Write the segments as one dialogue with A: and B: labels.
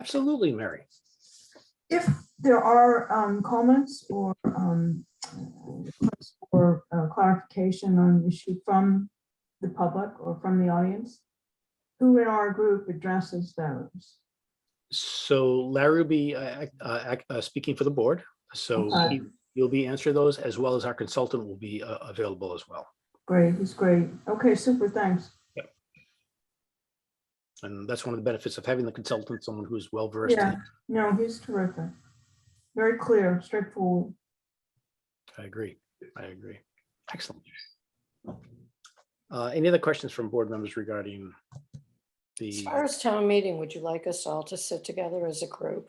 A: Absolutely, Mary.
B: If there are um, comments or um, requests for uh, clarification on an issue from the public or from the audience, who in our group addresses those?
A: So Larry will be uh, ac- uh, ac- uh, speaking for the board, so
B: Okay.
A: he- you'll be answering those, as well as our consultant will be uh, available as well.
B: Great, he's great. Okay, super, thanks.
A: And that's one of the benefits of having the consultant, someone who's well versed.
B: Yeah, no, he's terrific. Very clear, straightforward.
A: I agree, I agree. Excellent. Uh, Any other questions from board members regarding
C: As
A: the,
C: far as town meeting, would you like us all to sit together as a group?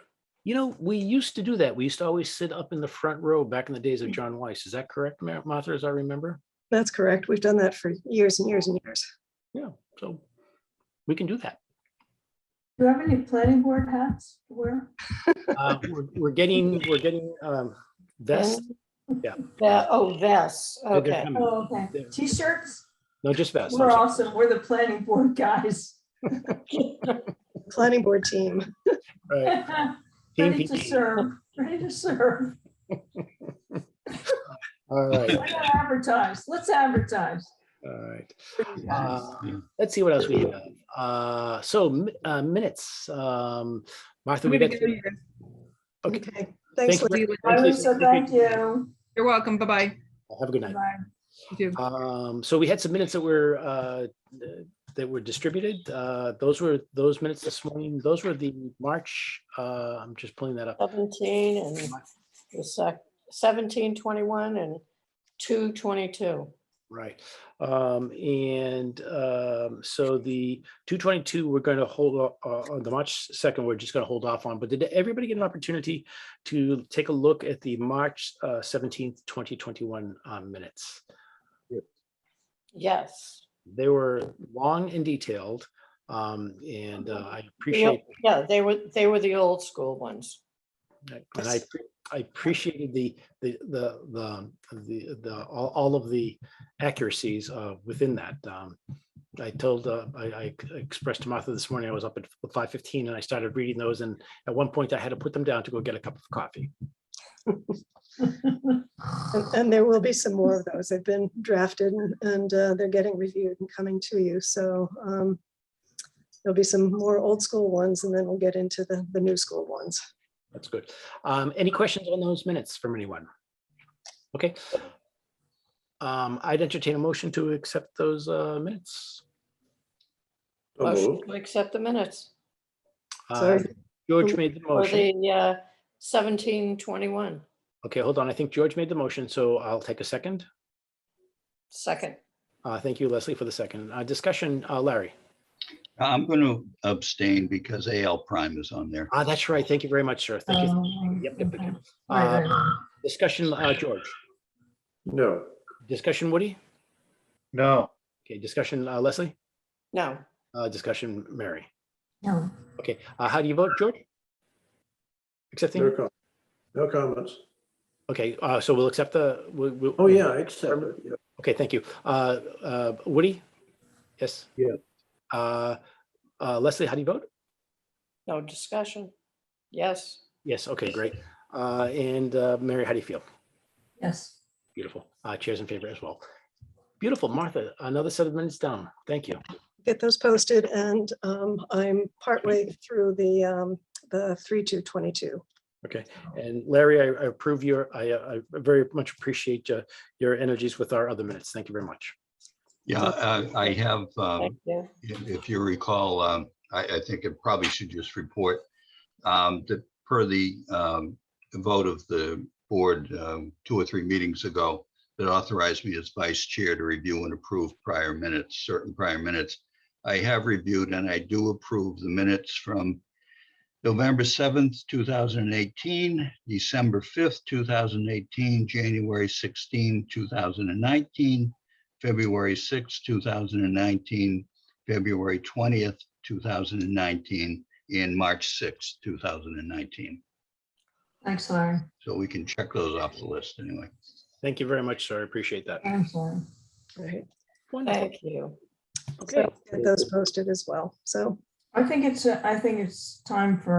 A: you know, we used to do that. We used to always sit up in the front row back in the days of John Weiss. Is that correct, Ma- Martha, as I remember?
D: That's correct. We've done that for years and years and years.
A: Yeah, so we can do that.
B: Do you have any planning board hats to wear?
A: Uh, We're we're getting, we're getting um, vests Yeah.
C: Ve- Oh, vests,
A: Yeah, they're
C: okay.
A: coming.
B: Oh, okay.
A: Yeah.
B: T-shirts?
A: No, just vests. I'm
B: We're
A: sorry.
B: awesome. We're the planning board guys.
D: Planning board team.
A: Right. Team
B: Ready to
A: PT.
B: serve, ready to serve.
A: All right,
B: Why not advertise? Let's advertise.
A: all right. Uh, Let's see what else we have. Uh, So mi- uh, minutes. um, Martha,
E: I'm
A: we
E: gonna
A: got.
E: go, you guys.
A: Okay.
D: Okay.
E: Thank
D: Thanks,
E: you.
D: Lydia.
B: I
A: Thanks,
B: was
A: Lisa.
B: so thank you.
E: You're welcome. Bye-bye.
A: Have a good night.
B: Bye.
E: You too.
A: Um, So we had some minutes that were, uh, that were distributed. Uh, Those were, those minutes this morning, those were the March, uh, I'm just pulling that up.
C: Seventeen and the sec, seventeen twenty-one and two twenty-two.
A: Right. Um, and, um, so the two twenty-two, we're going to hold, o- uh, on the March second, we're just going to hold off on, but did everybody get an opportunity to take a look at the March uh, seventeenth, twenty twenty-one, um, minutes?
C: Yes.
A: They were long and detailed, um, and uh, I
C: The
A: appreciate,
C: o- Yeah, they were, they were the old school ones.
A: and I, I appreciated the, the, the, the, the, the, all, all of the accuracies, uh, within that. Um, I told, uh, I, I ex- expressed to Martha this morning, I was up at five fifteen and I started reading those and at one point I had to put them down to go get a cup of coffee.
D: And- And there will be some more of those. They've been drafted and- and uh, they're getting reviewed and coming to you. So um, there'll be some more old school ones and then we'll get into the, the new school ones.
A: That's good. Um, any questions on those minutes from anyone? Okay. Um, I'd entertain a motion to accept those, uh, minutes.
D: Oh,
C: Motion to accept the minutes
A: Uh,
D: Sorry.
A: George made the
D: Oh,
C: for
A: motion.
C: the uh, seventeen twenty-one.
A: Okay, hold on. I think George made the motion, so I'll take a second.
C: Second,
A: Uh, Thank you, Leslie, for the second. Uh, Discussion, uh, Larry.
F: I'm going to abstain because AL prime is on there.
A: Ah, That's right. Thank you very much, sir. Thank you.
B: Um,
A: Yep, yep, yep,
B: okay.
A: yep.
B: Right,
A: Uh,
B: right.
A: Discussion, uh, George.
G: No.
A: Discussion, Woody.
G: No.
A: Okay, discussion, uh, Leslie.
C: no,
A: Uh, Discussion, Mary.
B: No.
A: Okay, uh, how do you vote, George?
G: No
A: Accepting?
G: com- no comments.
A: Okay, uh, so we'll accept the. we- we-
G: Oh, yeah, except, yeah.
A: Okay, thank you. Uh, uh, Woody? Yes?
G: Yeah.
A: Uh, uh, Leslie, how do you vote?
C: no discussion. Yes.
A: Yes, okay, great. Uh, And uh, Mary, how do you feel?
B: Yes.
A: Beautiful. Uh, chairs in favor as well. Beautiful, Martha. Another seven minutes down. Thank you.
D: Get those posted and um, I'm partway through the, um, the 3222.
A: Okay. And Larry, I I approve your, I, uh, I very much appreciate uh, your energies with our other minutes. Thank you very much.
F: Yeah, I I have, um,
C: Thank you.
F: if if you recall, um, I, I think it probably should just report um, that per the um, vote of the board um, two or three meetings ago that authorized me as vice chair to review and approve prior minutes, certain prior minutes. I have reviewed and I do approve the minutes from November 7th, 2018, December 5th, 2018, January 16, 2019, February 6th, 2019, February twentieth, two thousand and nineteen, and March sixth, two thousand and nineteen.
B: Thanks, Larry.
F: So we can check those off the list anyway.
A: Thank you very much, sir. I appreciate that.
B: I'm sorry.
D: Right.
A: Wonderful.
C: Thank you.
D: So Get those posted as well. So
B: I think it's, uh, I think it's time for